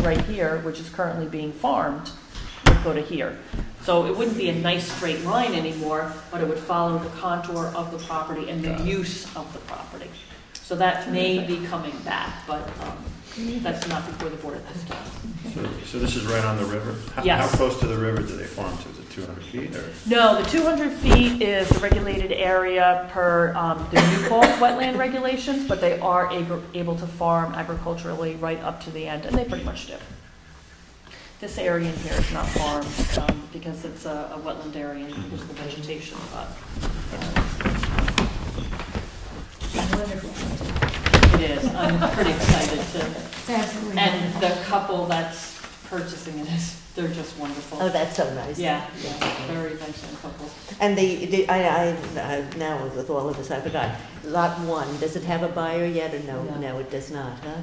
right here, which is currently being farmed, would go to here. So it wouldn't be a nice straight line anymore, but it would follow the contour of the property and the Got it. use of the property. So that may be coming back, but um, that's not before the board at this time. So- So this is right on the river? How- Yes. How close to the river do they farm to? Is it 200 feet or? No, the 200 feet is the regulated area per um, the new fall wetland regulations, but they are ag- able to farm agriculturally right up to the end, and they pretty much do. This area in here is not farmed um, because it's a a wetland area and there's the vegetation, but uh. It's wonderful. it is. I'm pretty excited to, It's absolutely and wonderful. the couple that's purchasing it is, they're just wonderful. Oh, that's so nice. Yeah, yeah, very nice young couple. And the, the- I, I, I- now with all of this, I forgot. Lot one, does it have a buyer yet or no? No. No, it does not, huh?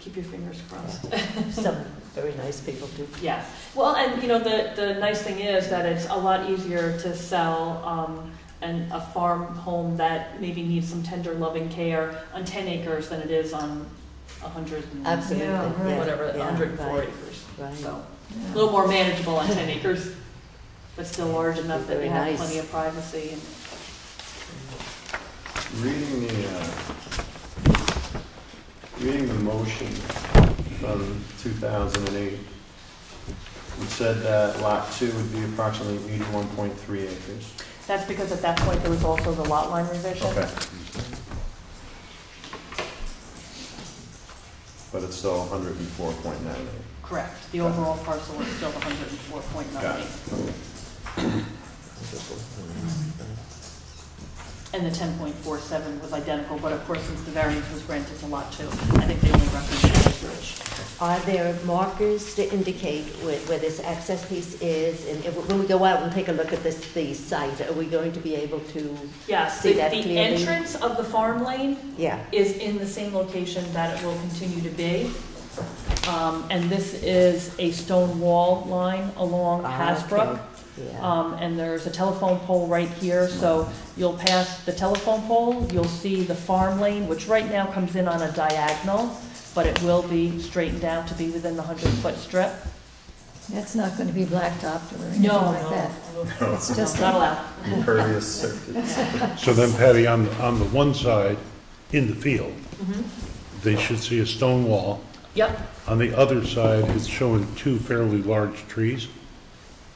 Keep your fingers crossed. Some very nice people do. Yeah, well, and you know, the, the nice thing is that it's a lot easier to sell, um, an, a farm home that maybe needs some tender loving care on ten acres than it is on a hundred and Absolutely. Yeah, right. yeah, whatever, a yeah, hundred and four right, acres. Right. So, a Yeah. little more manageable on ten acres, but still large enough that Very we have nice. plenty of privacy and. Reading the, uh, reading the motion from 2008, it said that lot two would be approximately 81.3 acres. That's because at that point, there was also the lot line revision. Okay. But it's still 104.9 acres. Correct, the overall parcel is still hundred and four point Got nine it. eight. And the ten point four seven was identical, but of course, since the variance was granted to lot two, I think they only referenced the acreage. Are there markers to indicate where, where this access piece is? And if, when we go out and take a look at this, the site, are we going to be able to, Yes, See the, that the clearly? entrance of the farm lane yeah? is in the same location that it will continue to be. Um, and this is a stone wall line along Hasbrook. Ah, Okay, Yeah, Um, and there's a telephone pole right here, so you'll pass the telephone pole, you'll see the farm lane, which right now comes in on a diagonal, but it will be straightened out to be within the hundred foot strip. That's not going to be blacktopped or anything like that. It's just Not a- allowed. Impervious surface. So then Patty, on, on the one side, in the field, they should see a stone wall. Yep, On the other side, it's showing two fairly large trees.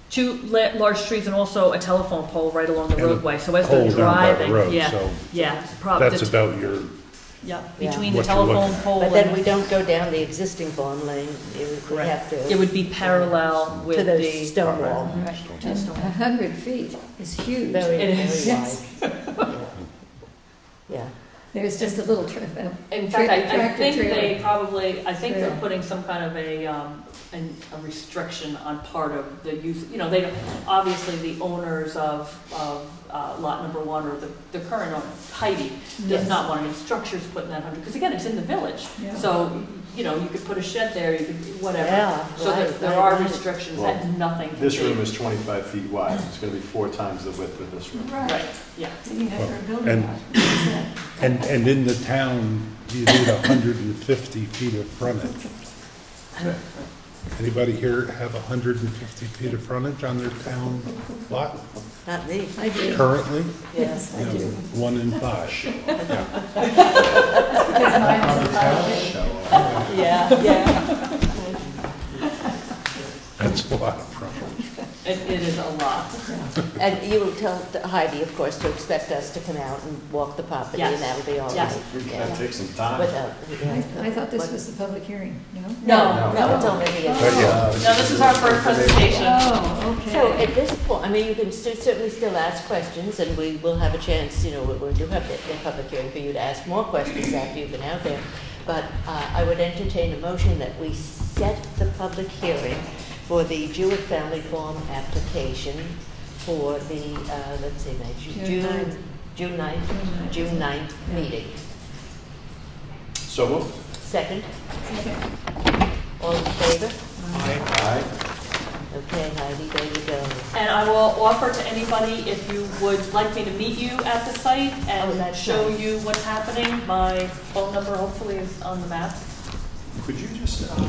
two la- large trees and also a telephone pole right along the And a roadway, so as they're Hole down by the driving, road, yeah, so yeah. prob- that's the- about your, Yeah, Yeah. between the What you're looking telephone at. pole but then we oh, and, don't go down the existing farm lane, it would, we Correct. have to. it would be parallel To with the the, stone wall. and A hundred feet is huge. Very, It very is. wide. Yeah. There's just a little trip. uh, in fact, I, I Tractor think they trailer. probably, I think they're Trailer. putting some kind of a, um, an, a restriction on part of the use, you know, they, don't obviously, the owners of, of, uh, lot number one, or the, the current owner, Heidi, does Yes. not want any structures put in that hundred, because again, it's in the village, Yeah. so, you know, you could put a shed there, you could, whatever. Yeah. So there, right, there right, are right. restrictions that nothing can be. This room is 25 feet wide, it's going to be four times the width of this room. Right, yeah. You have Well, to build and- it. and, and in the town, you need hundred and fifty feet of frontage. Anybody here have hundred and fifty feet of frontage on their town lot Not me, I do, currently? yes. I No, do. One in five. Because mine is about it. Yeah, yeah. That's a lot of frontage. It, it is a lot. And you will tell Heidi, of course, to expect us to come out and walk the property, and Yes. that'll be all Yes. right. That Yeah. takes some time. Without, I yeah. I thought this was the public hearing, no? No, No, it's only But a... yeah. no, this is our first presentation. Oh, okay. So at this point, I mean, you can st- certainly still ask questions, and we will have a chance, you know, we- we do have the the public hearing for you to ask more questions after you've been out there. But uh, I would entertain a motion that we set the public hearing for the Jewett Family Farm application for the, uh, let's see, now, Ju- June ninth. June, June 9th, June ninth. June 9th meeting. So moved. Second, Okay. all in favor? Aye. Okay, Heidi, there you go. And I will offer to anybody, if you would like me to meet you at the site Oh, and that's show nice. you what's happening, my phone number hopefully is on the map. Could you just,